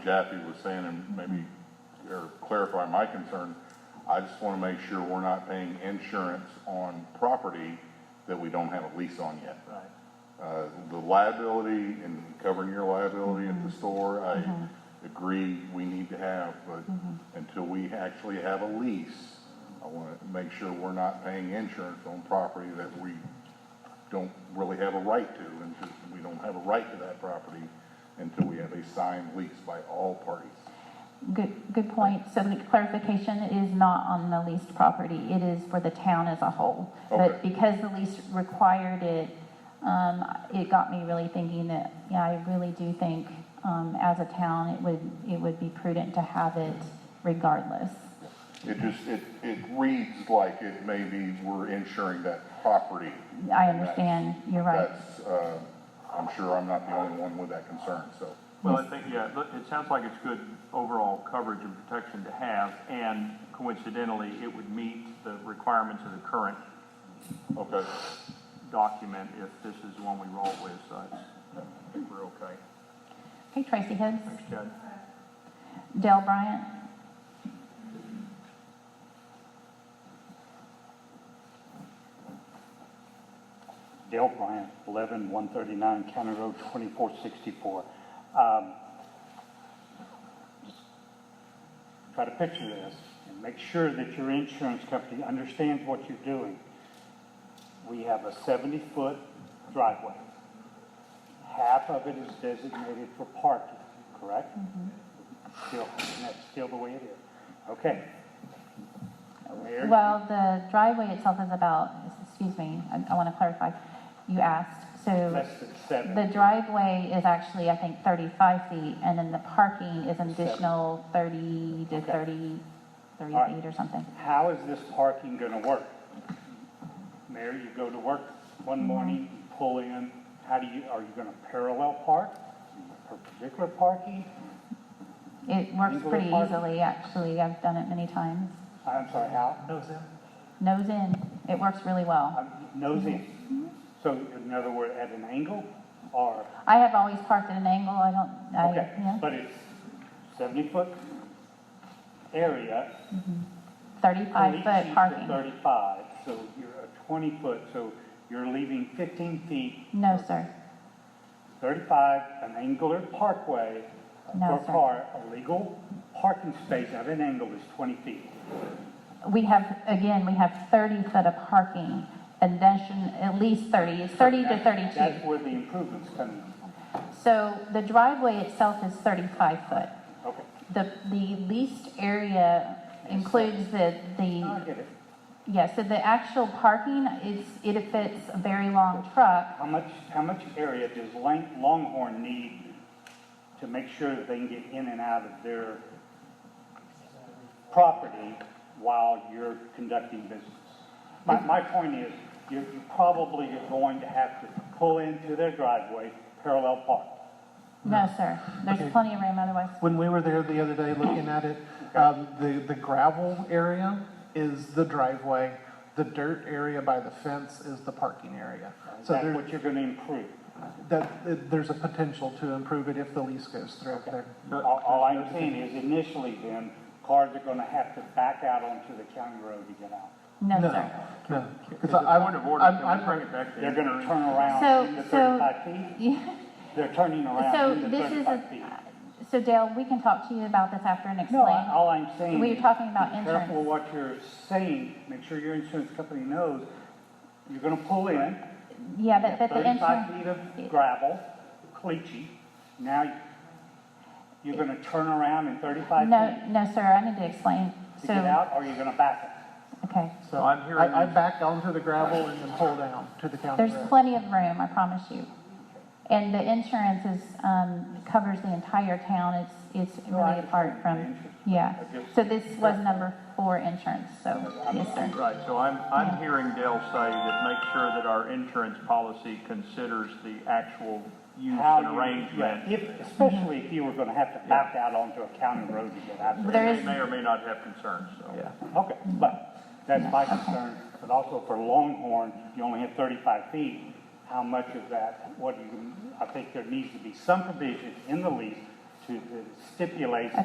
Kathy was saying, and maybe, or clarify my concern, I just want to make sure we're not paying insurance on property that we don't have a lease on yet. Right. Uh, The liability and covering your liability at the store, I agree we need to have, but until we actually have a lease, I want to make sure we're not paying insurance on property that we don't really have a right to, and to- we don't have a right to that property until we have a signed lease by all parties. Good, good point. So the clarification is not on the leased property, it is for the town as a whole. But Okay. because the lease required it, um, it got me really thinking that, yeah, I really do think, um, as a town, it would, it would be prudent to have it regardless. It just, it, it reads like it maybe we're insuring that property. I understand, you're right. That's, uh, I'm sure I'm not the only one with that concern, so. Well, I think, yeah, look, it sounds like it's good overall coverage and protection to have, and coincidentally, it would meet the requirements of the current Okay. document if this is the one we roll with, so I think we're okay. Okay, Tracy Higgs, Thanks, Chad. Dale Bryant, Dale Bryant, 11139 County Road 2464. Um, just Try to picture this and make sure that your insurance company understands what you're doing. We have a 70-foot driveway. Half of it is designated for parking, correct? Mm-hmm. Still, and that's still the way it is. Okay. Mayor? Well, the driveway itself is about, excuse me, I, I want to clarify. You asked, so. Less than seven. The driveway is actually, I think, 35 feet, and then the parking is an additional 30 to Okay. 30, 30 All right. feet or something. How is this parking gonna work? Mayor, you go to work one morning, you pull in, how do you, are you gonna parallel park? Perpendicular parking? It works Angle of pretty parking? easily, actually, I've done it many times. I'm sorry, how? Nose in, it works really well. Um, Nose in. So in other words, at an angle or, I have always parked at an angle, I don't, I, okay, yeah, but it's seventy foot area. 35 Thirty feet foot to parking. Thirty-five, so you're a twenty foot, so you're leaving fifteen feet No, sir, 35, an angular parkway No, for sir. car, a legal parking space at an angle is 20 feet. we have, again, we have 30 foot of parking, and then should- at least 30, it's 30 to That's- 32. That's where the improvements come in. So the driveway itself is 35 foot. Okay, The, the leased area includes the, I the, get it. yeah, so the actual parking is, it fits a very long truck. How much, how much area does Lang- Longhorn need to make sure that they can get in and out of their property while you're conducting business? My, my point is, you you probably are going to have to pull into their driveway, parallel park. No, sir, Okay. there's plenty of room otherwise. When we were there the other day looking at it, um, the, the gravel area is the driveway. The dirt area by the fence is the parking area. So That's there, what you're going to improve. that, that- there's a potential to improve it if the lease goes through there. All, all I'm saying is initially then, cars are gonna have to back out onto the county road to get out. No, sir. No, because I, Point of order, I'm, can we I'm, bring it back to They're insurance? gonna turn around So- in the so- thirty-five feet, Yeah. they're turning So around in the this is thirty-five a- feet. So Dale, we can talk to you about this after and No, I- explain. all I'm saying. We were is talking about Be careful insurance. what you're saying, make sure your insurance company knows, you're gonna pull in, Yeah, you have but, but the thirty-five insurance, feet of gravel, caliche, now you- you're gonna turn around in thirty-five no, feet no, sir, I need to explain. to get So, out, or you're gonna back it? okay, so I'm hearing I, I you. backed onto the gravel and then pulled down to the county there's road. plenty of room, I promise you. And the insurance is, um, covers the entire town, it's, it's No, I really apart understand the from, insurance. yeah. I just- So this was number four insurance, so, yes, sir. Right, so I'm, I'm hearing Dale say that make sure that our insurance policy considers the actual use how and you- arrangement. yeah, If, especially if you were gonna have to back out onto a county road to get out And there. There they is- may or may not have concerns, so. Yeah. Okay, but that's my concern, but also for Longhorn, you only have thirty-five feet. How much of that, what do you, I think there needs to be some provision in the lease to, that stipulates